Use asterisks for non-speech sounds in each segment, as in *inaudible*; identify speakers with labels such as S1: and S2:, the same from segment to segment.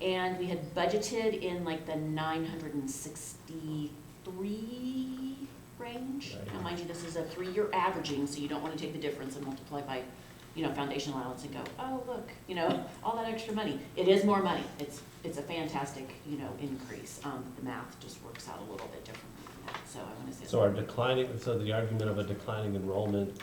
S1: And we had budgeted in like the nine hundred and sixty-three range. Now, mind you, this is a three-year averaging, so you don't wanna take the difference and multiply by, you know, foundation allowance and go, oh, look, you know, *laughs* all that extra money. It is more money. It's, it's a fantastic, you know, increase. Um, the math just works out a little bit differently than that, so I wanna say.
S2: So our declining, so the argument of a declining enrollment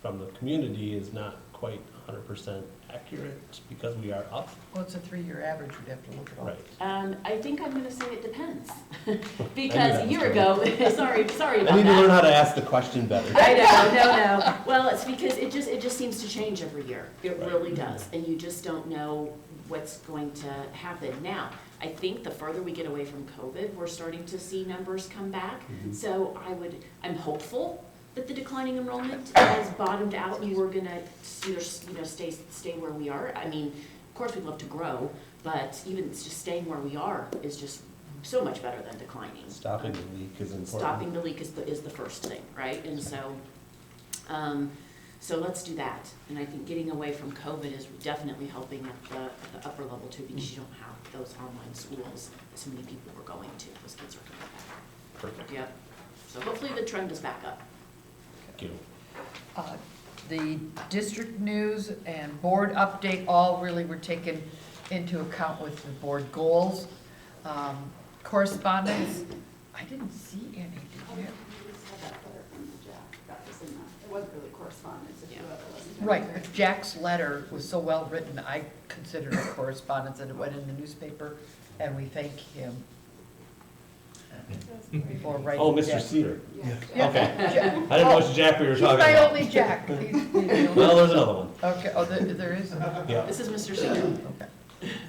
S2: from the community is not quite hundred percent accurate because we are up,
S3: Well, it's a three-year average, you'd have to look at all.
S2: right?
S1: Um, I think I'm gonna say it
S2: *laughs*
S1: depends, *laughs*
S2: that
S1: because a
S2: was
S1: year ago, *laughs* sorry, sorry
S2: I
S1: about
S2: need to learn
S1: that.
S2: how to ask the question better.
S1: I know, no, no, *laughs* well, it's because it just, it just seems to change every year, it
S2: Right.
S1: really does, and you just don't know what's going to happen now. I think the further we get away from COVID, we're starting to see numbers come back,
S2: Mhm.
S1: so I would, I'm hopeful that the declining enrollment has bottomed out and we're gonna either, you know, stay, stay where we are. I mean, of course, we'd love to grow, but even just staying where we are is just so much better than declining.
S2: Stopping the leak is important.
S1: Stopping the leak is, the is the first thing, right? And so, um, so let's do that. And I think getting away from COVID is definitely helping at the, at the upper level too, because you don't have those online schools that so many people were going to, those kids are coming back.
S2: Perfect,
S1: Yep. So hopefully the trend is back up.
S2: thank you.
S3: Uh, The district news and board update all really were taken into account with the board goals. Um, Correspondence, I didn't see any, did you?
S4: It wasn't really correspondence, if you ever listened to it.
S3: Right, Jack's letter was so well-written, I considered it correspondence, and it went in the newspaper, and we thank him for writing that.
S2: Oh, Mr. Cedar,
S4: Yeah.
S3: Yeah. *laughs*
S2: okay.
S3: Ja-
S2: I didn't know it was Jack we were
S3: He's
S2: talking about.
S3: my only Jack. He's- he's the only-
S2: Well, there's another one,
S3: Okay, oh, there, there is, okay,
S2: yeah,
S1: This is Mr. Singer.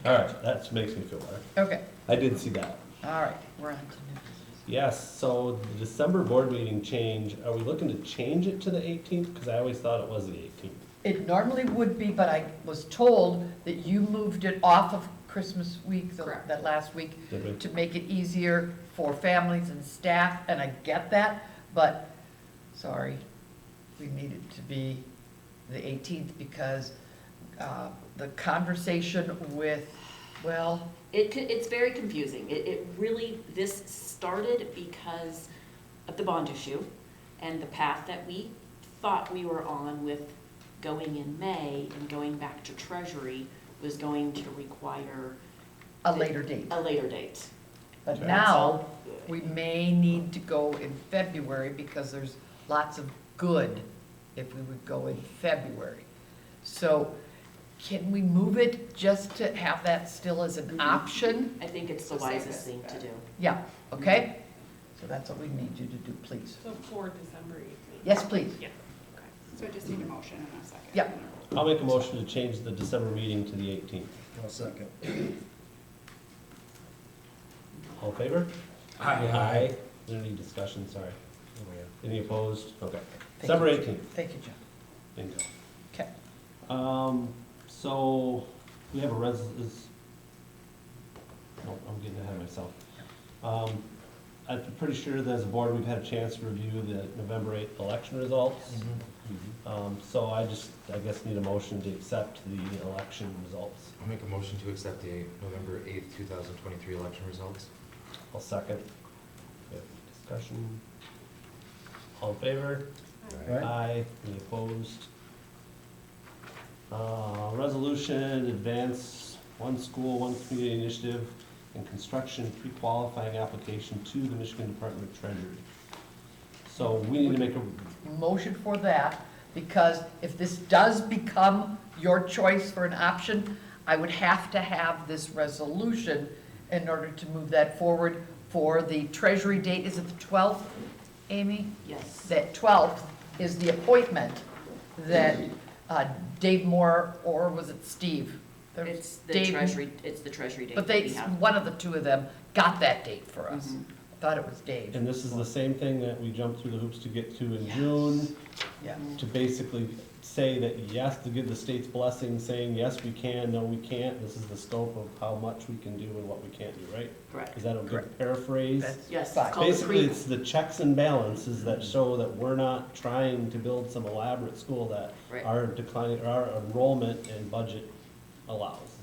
S2: all right, that makes me feel better.
S3: okay,
S2: I did see that.
S3: all right, we're on to new
S2: Yes, so the December board meeting change, are we looking to change it to the eighteenth? Because I always thought it was the eighteenth.
S3: business. It normally would be, but I was told that you moved it off of Christmas week, the-
S1: Correct.
S3: that last week,
S2: Did we?
S3: to make it easier for families and staff, and I get that, but, sorry, we need it to be the eighteenth because, uh, the conversation with, well,
S1: It, co- it's very confusing. It, it really, this started because of the bond issue and the path that we thought we were on with going in May and going back to Treasury was going to require
S3: a later date.
S1: a later date.
S3: But
S2: Okay.
S3: now, we may need to go in February because there's lots of good if we would go in February. So can we move it just to have that still as an option?
S1: I think it's the wisest thing to do.
S3: Yeah, okay? So that's what we need you to do, please.
S5: So for December eighteenth?
S3: Yes, please.
S4: So I just need a motion and a second.
S3: Yeah.
S2: I'll make a motion to change the December meeting to the eighteenth.
S6: I'll second.
S2: All in favor?
S6: Aye.
S2: Aye. Is there any discussion, sorry?
S6: Oh,
S2: Any opposed? Okay. December
S3: you.
S2: eighteenth,
S3: Thank you, John.
S2: bingo.
S3: Okay.
S2: Um, so, we have a res, is, no, I'm getting ahead of myself. Um, I'm pretty sure that as a board, we've had a chance to review the November eighth election results.
S3: Mm-hmm.
S2: Um, so I just, I guess need a motion to accept the election results.
S7: I'll make a motion to accept the November 8th, 2023 election results.
S2: I'll second. We have Discussion. All in favor?
S6: Right.
S2: Aye. Any opposed? Uh, resolution, advance one school, one community initiative, and construction pre-qualifying application to the Michigan Department of Treasury. So we need to make a,
S3: motion for that, because if this does become your choice for an option, I would have to have this resolution in order to move that forward for the treasury date, is it the twelfth, Amy?
S1: Yes.
S3: That twelfth is the appointment that uh, Dave Moore, or was it Steve? There was
S1: It's the
S3: Dave-
S1: Treasury, it's the Treasury date
S3: But
S1: that
S3: they,
S1: we have.
S3: one of the two of them got that date for us.
S1: Mhm.
S3: I Thought it was Dave,
S2: and this is the same thing that we jumped through the hoops to get to in June.
S3: yeah.
S2: to basically say that yes, to give the state's blessing, saying yes, we can, no, we can't, this is the scope of how much we can do and what we can't do, right?
S1: Correct.
S2: Is that a good
S3: Correct.
S2: paraphrase?
S3: That's
S1: Yes,
S3: fine.
S1: it's called the
S2: Basically,
S1: pre,
S2: it's the checks and balances that show that we're not trying to build some elaborate school that
S1: Right.
S2: our decline, or our enrollment and budget allows.